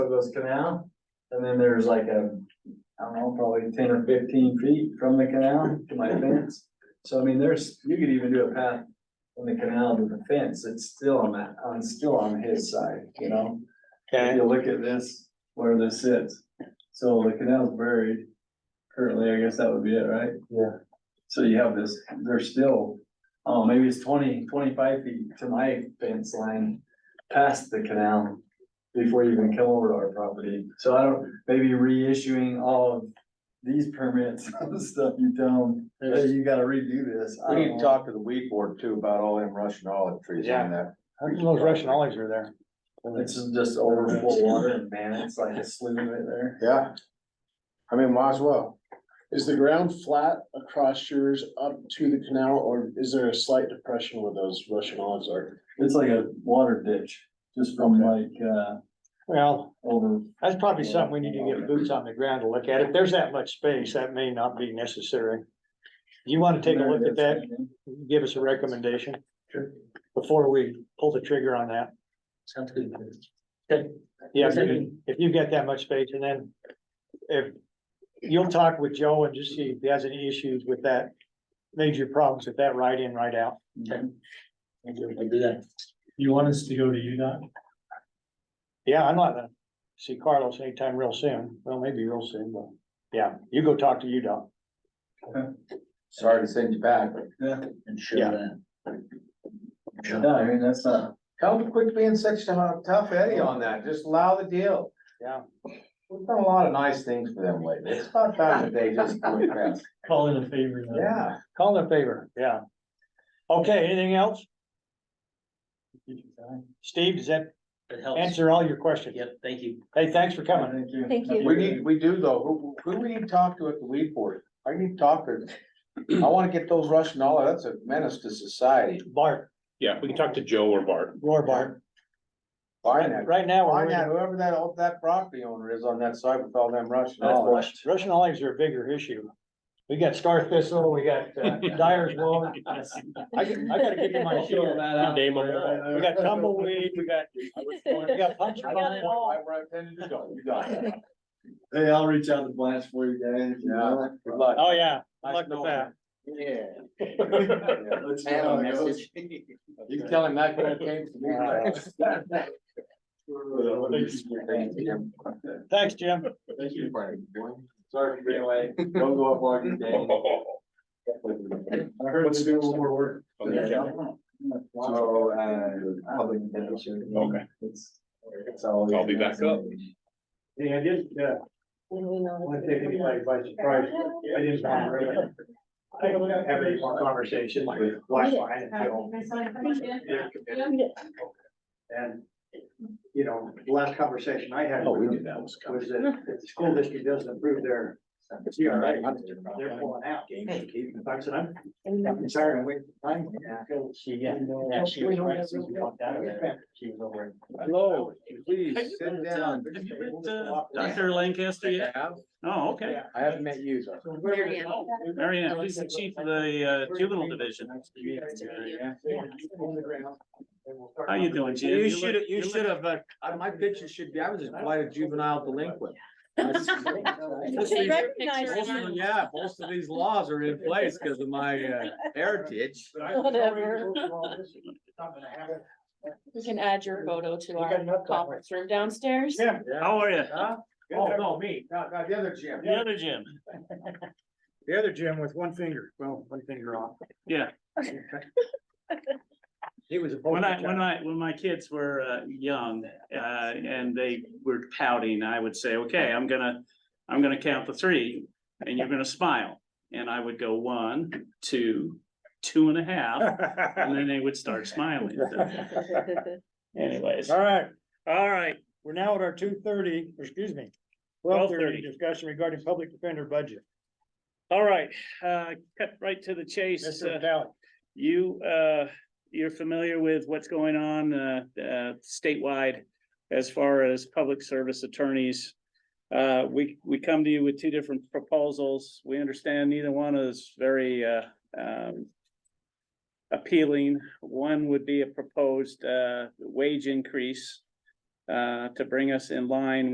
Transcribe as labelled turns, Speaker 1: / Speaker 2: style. Speaker 1: goes canal, and then there's like a, I don't know, probably ten or fifteen feet from the canal to my fence. So I mean, there's, you could even do a path from the canal to the fence, it's still on that, on, still on his side, you know? If
Speaker 2: Okay,
Speaker 1: you look at this, where this sits, so the canal's buried, currently, I guess that would be it, right?
Speaker 3: Yeah.
Speaker 1: So you have this, there's still, oh, maybe it's 20, 25 feet to my fence line, past the canal. Before you even come over to our property, so I don't, maybe reissuing all of these permits, and stuff you don't, hey, you gotta redo this. I
Speaker 3: We need
Speaker 1: don't
Speaker 3: to
Speaker 1: know.
Speaker 3: talk to the weed board too about all them Russian olive trees
Speaker 2: Yeah.
Speaker 3: on that.
Speaker 2: how come those Russian olives are there?
Speaker 1: It's just overflow water and man, it's like a slough right there.
Speaker 3: Yeah. I mean, might as well.
Speaker 4: Is the ground flat across yours up to the canal, or is there a slight depression where those Russian olives are?
Speaker 1: It's like a water ditch, just from like, uh,
Speaker 2: Well,
Speaker 1: over
Speaker 2: that's probably something we need to get boots on the ground to look at. If there's that much space, that may not be necessary. You wanna take a look at that, give us a recommendation?
Speaker 1: Sure.
Speaker 2: Before we pull the trigger on that.
Speaker 5: Sounds good.
Speaker 2: Yeah, if you- if you've got that much space and then if you'll talk with Joe and just see if he has any issues with that. Major problems with that right in, right out.
Speaker 5: I'll do I'll do that.
Speaker 6: You want us to go to UDOT?
Speaker 2: Yeah, I'm not gonna see Carlos anytime real soon. Well, maybe real soon, but yeah, you go talk to UDOT.
Speaker 3: Sorry to send you back, but
Speaker 5: Ensure
Speaker 2: Yeah.
Speaker 5: that.
Speaker 1: No, I mean, that's not,
Speaker 3: tell them to quit being such a hot- tough Eddie on that. Just allow the deal.
Speaker 2: Yeah.
Speaker 3: We've done a lot of nice things for them lately. It's about time that they just quit that.
Speaker 6: Call in a favor. then.
Speaker 3: Yeah.
Speaker 2: Call in a favor, yeah. Okay, anything else? Steve, does that
Speaker 5: It helps.
Speaker 2: answer all your questions?
Speaker 5: Yep, thank you.
Speaker 2: Hey, thanks for coming.
Speaker 1: thank you.
Speaker 7: Thank you.
Speaker 3: We need, we do though. Who, who we need to talk to at the weed board? I need to talk to. I wanna get those Russian olive, that's a menace to society.
Speaker 2: Bart,
Speaker 8: Yeah, we can talk to Joe or Bart.
Speaker 2: Roy Bart.
Speaker 3: Buy that.
Speaker 2: Right now, we're
Speaker 3: Find
Speaker 2: worried
Speaker 3: out whoever that, old- that property owner is on that side with all them Russian
Speaker 1: That's
Speaker 3: olives.
Speaker 1: washed.
Speaker 2: Russian olives are a bigger issue. We got star thistle, we got uh, dyer's wool. I got- I gotta give you my
Speaker 1: Throw
Speaker 2: shield.
Speaker 1: that out
Speaker 8: Name 'em.
Speaker 1: there.
Speaker 2: We got tumbleweed, we got, we got punch.
Speaker 3: I
Speaker 2: bowl.
Speaker 3: don't know why we're intending to go. You got it.
Speaker 1: Hey, I'll reach out to Blanche for you guys. you know?
Speaker 3: Good luck.
Speaker 2: Oh, yeah,
Speaker 3: Nice
Speaker 2: luck with
Speaker 3: knowing
Speaker 2: that.
Speaker 3: Yeah.
Speaker 1: Let's see how it goes.
Speaker 3: You can tell him that kind of came to me. Thank you.
Speaker 2: Thanks, Jim.
Speaker 3: Thank you, Frank. Sorry for being late. Don't go up like you're dead.
Speaker 1: I heard it's doing more work.
Speaker 8: Okay.
Speaker 3: Oh, So, uh, public interest.
Speaker 8: Okay.
Speaker 3: It's- it's always-
Speaker 8: I'll be back up.
Speaker 6: Yeah, I did, yeah,
Speaker 7: When we know.
Speaker 6: I want to take anybody by surprise, but I didn't want to really have any more conversation with Lifeline until. And, you know, the last conversation I had
Speaker 3: Oh, we
Speaker 6: with
Speaker 3: knew
Speaker 6: them
Speaker 3: that was coming.
Speaker 6: was that if the school district doesn't approve their, CRA, they're pulling out. I said, I'm, I'm sorry, I'm waiting for time. until-
Speaker 5: She, yeah.
Speaker 6: Yeah, she was right, since we walked out of there.
Speaker 5: She was over.
Speaker 3: Hello, please sit down.
Speaker 9: Have you met, uh, Dr. Lancaster yet? Oh, okay.
Speaker 3: I haven't met you, though.
Speaker 9: Mary Ann, she's the chief of the uh, juvenile division. How you doing, Jim?
Speaker 3: You
Speaker 9: look-
Speaker 3: should, have. you
Speaker 9: look-
Speaker 3: should have, uh, uh, my picture should be, I was just quite a juvenile delinquint. Most of them- Yeah, most of these laws are in place because of my uh, heritage.
Speaker 7: Whatever.
Speaker 10: You can add your photo to our
Speaker 6: enough
Speaker 10: conference room downstairs.
Speaker 6: Yeah.
Speaker 9: How are you?
Speaker 6: Oh, no, me.
Speaker 3: No, no, the other Jim.
Speaker 9: The other Jim.
Speaker 2: The other Jim with one finger, well, one finger off.
Speaker 9: Yeah.
Speaker 2: He was a.
Speaker 9: When I, when I, when my kids were uh, young uh, and they were pouting, I would say, okay, I'm gonna, I'm gonna count to three and you're gonna smile. And I would go one, two, two and a half, and then they would start smiling. So Anyways,
Speaker 2: All right,
Speaker 9: all right.
Speaker 2: we're now at our two thirty, excuse me, twelve thirty discussion regarding public defender budget.
Speaker 9: All right, uh, cut right to the chase.
Speaker 2: Mr.
Speaker 9: uh,
Speaker 2: Vitale.
Speaker 9: You, uh, you're familiar with what's going on, uh, uh, statewide as far as public service attorneys. Uh, we, we come to you with two different proposals. We understand neither one is very, uh, um, appealing. One would be a proposed, uh, wage increase, uh, to bring us in line